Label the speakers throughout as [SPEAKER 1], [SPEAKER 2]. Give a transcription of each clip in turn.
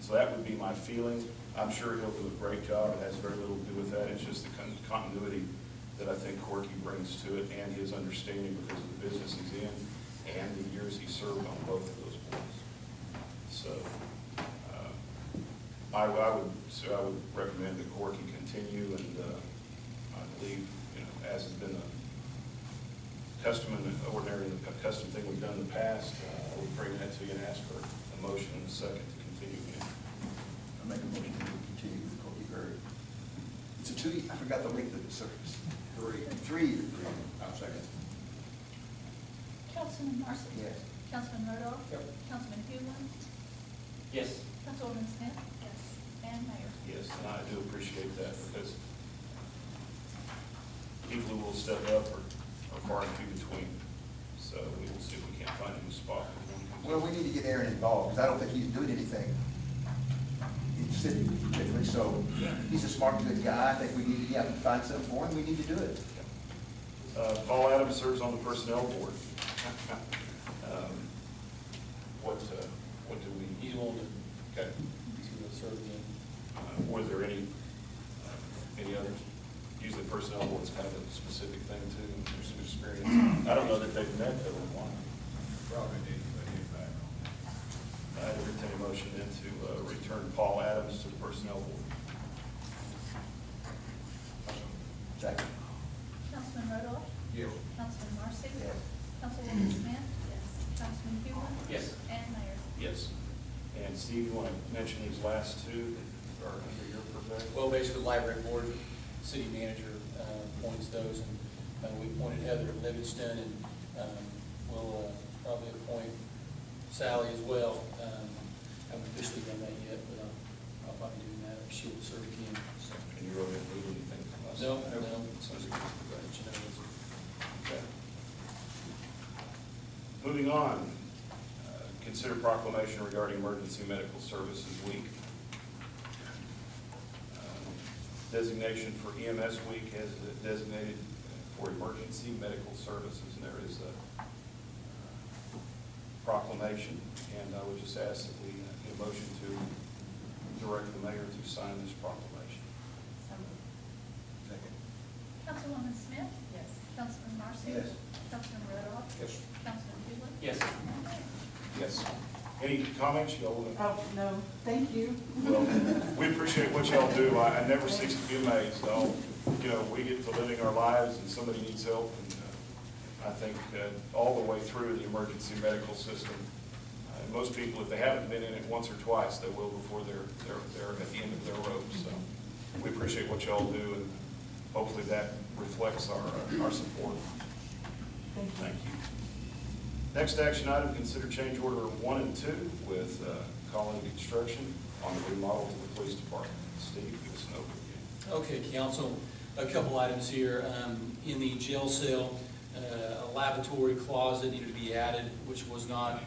[SPEAKER 1] So that would be my feeling. I'm sure he'll do a great job. It has very little to do with that. It's just the con- continuity that I think Corky brings to it and his understanding because of the business he's in and the years he served on both of those boards. So, uh, I, I would, so I would recommend that Corky continue and, uh, I believe, you know, as has been a custom and ordinary, a custom thing we've done in the past, uh, I would bring that to you and ask for a motion and a second to continue him.
[SPEAKER 2] I make a motion to continue with Cody Bird. It's a two, I forgot the length of the service. Three. Three years. I'll second.
[SPEAKER 3] Councilman Marcy?
[SPEAKER 2] Yes.
[SPEAKER 3] Councilman Rodoff?
[SPEAKER 2] Yep.
[SPEAKER 3] Councilman Huglen?
[SPEAKER 4] Yes.
[SPEAKER 3] Councilwoman Smith? Yes. And Mayor?
[SPEAKER 1] Yes, and I do appreciate that because people who will step up are, are far and few between. So we will see if we can't find him a spot.
[SPEAKER 2] Well, we need to get Aaron involved, because I don't think he's doing anything in the city particularly, so he's a smart, good guy. I think we need to, yeah, find something for him, we need to do it.
[SPEAKER 1] Uh, Paul Adams serves on the Personnel Board. Um, What, uh, what do we,
[SPEAKER 4] He's willing to,
[SPEAKER 1] okay,
[SPEAKER 4] to serve the,
[SPEAKER 1] Uh, were there any, uh, any others? Usually Personnel Board's kind of a specific thing too, there's some experience. I don't know that they've met everyone.
[SPEAKER 5] Probably need to put him back on.
[SPEAKER 1] I entertain a motion then to uh, return Paul Adams to the Personnel Board.
[SPEAKER 2] Second.
[SPEAKER 3] Councilman Rodoff?
[SPEAKER 5] Yes.
[SPEAKER 3] Councilman Marcy?
[SPEAKER 2] Yes.
[SPEAKER 3] Councilwoman Smith? Yes. Councilman Huglen?
[SPEAKER 4] Yes.
[SPEAKER 3] And Mayor?
[SPEAKER 1] Yes. And Steve, you want to mention these last two that are under your purview?
[SPEAKER 4] well, basically, the library board, city manager uh, appoints those, and uh, we appointed Heather Livingston, and um, we'll uh, probably appoint Sally as well. Um, Haven't officially done that yet, but I'll- I'll probably do that, if she will serve again, so.
[SPEAKER 1] And you really didn't need anything from us?
[SPEAKER 4] No, no.
[SPEAKER 1] So it's
[SPEAKER 4] But,
[SPEAKER 1] good.
[SPEAKER 4] you know, it's-
[SPEAKER 1] Okay. Moving on, uh, consider proclamation regarding Emergency Medical Services Week. Um, Designation for EMS Week has designated for emergency medical services, and there is a uh, proclamation, and I would just ask that we uh, get a motion to direct the mayor to sign this proclamation.
[SPEAKER 2] Second.
[SPEAKER 3] Councilwoman Smith? Yes. Councilman Marcy?
[SPEAKER 2] Yes.
[SPEAKER 3] Councilman Rodoff?
[SPEAKER 2] Yes.
[SPEAKER 3] Councilman Huglen?
[SPEAKER 4] Yes.
[SPEAKER 3] And Mayor?
[SPEAKER 1] Yes. Any comments, y'all? want to-
[SPEAKER 6] Oh, no, thank you.
[SPEAKER 1] Well, we appreciate what y'all do. I, I never cease to be amazed. So, you know, we get to living our lives and somebody needs help. And uh, I think uh, all the way through the emergency medical system, uh, and most people, if they haven't been in it once or twice, they will before they're, they're, they're at the end of their rope. So we appreciate what y'all do and hopefully that reflects our, our support.
[SPEAKER 6] Thank you.
[SPEAKER 1] Thank you. Next action item, consider change order one and two with uh, Colony Construction on the remodel to the police department. Steve, give us an overview.
[SPEAKER 4] Okay, council, a couple items here. Um, In the jail cell, uh, a lavatory closet needed to be added, which was not, uh,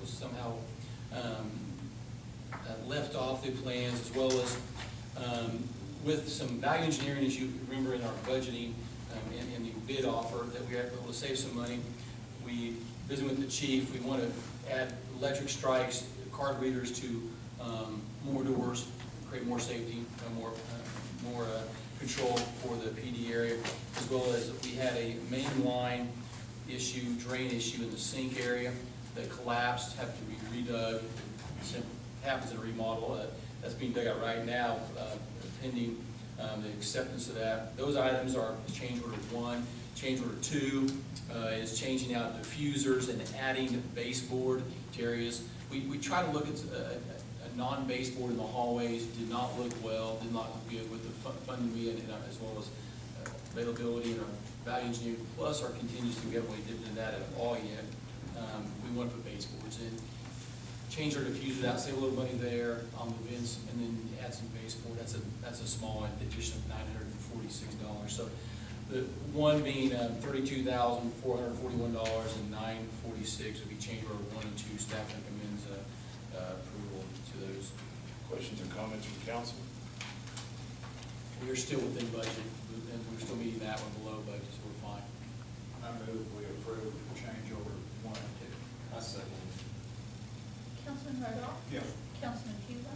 [SPEAKER 4] was somehow um, uh, left off the plans, as well as um, with some value engineering, as you remember in our budgeting, um, in in the bid offer, that we were able to save some money. We visited with the chief, we want to add electric strikes, card readers to um, more doors, create more safety, uh, more, uh, more uh, control for the PD area, as well as we had a main line issue, drain issue in the sink area that collapsed, have to be redug. This Happens in a remodel, uh, that's being dug out right now, uh, pending um, the acceptance of that. Those items are change order one. Change order two uh, is changing out diffusers and adding baseboard to areas. We, we try to look at uh, uh, a non-baseboard in the hallways did not look well, did not look good with the fu- funding we had, and, uh, as well as uh, availability and our value engineering, plus our contingency, we haven't really dipped into that at all yet. Um, We want to put baseboards in, change our diffusers out, save a little money there on the vents, and then add some baseboard, that's a, that's a small addition of nine hundred and forty-six dollars. So the one being uh, thirty-two thousand, four hundred and forty-one dollars and nine forty-six would be change order one and two, staff recommends uh, uh, approval to those.
[SPEAKER 1] Questions or comments from council?
[SPEAKER 4] We are still within budget, and we're still meeting that one below budget, so we're fine.
[SPEAKER 5] I move we approve change order one and two.
[SPEAKER 4] I second.
[SPEAKER 3] Councilman Rodoff?
[SPEAKER 5] Yes.
[SPEAKER 3] Councilman Huglen?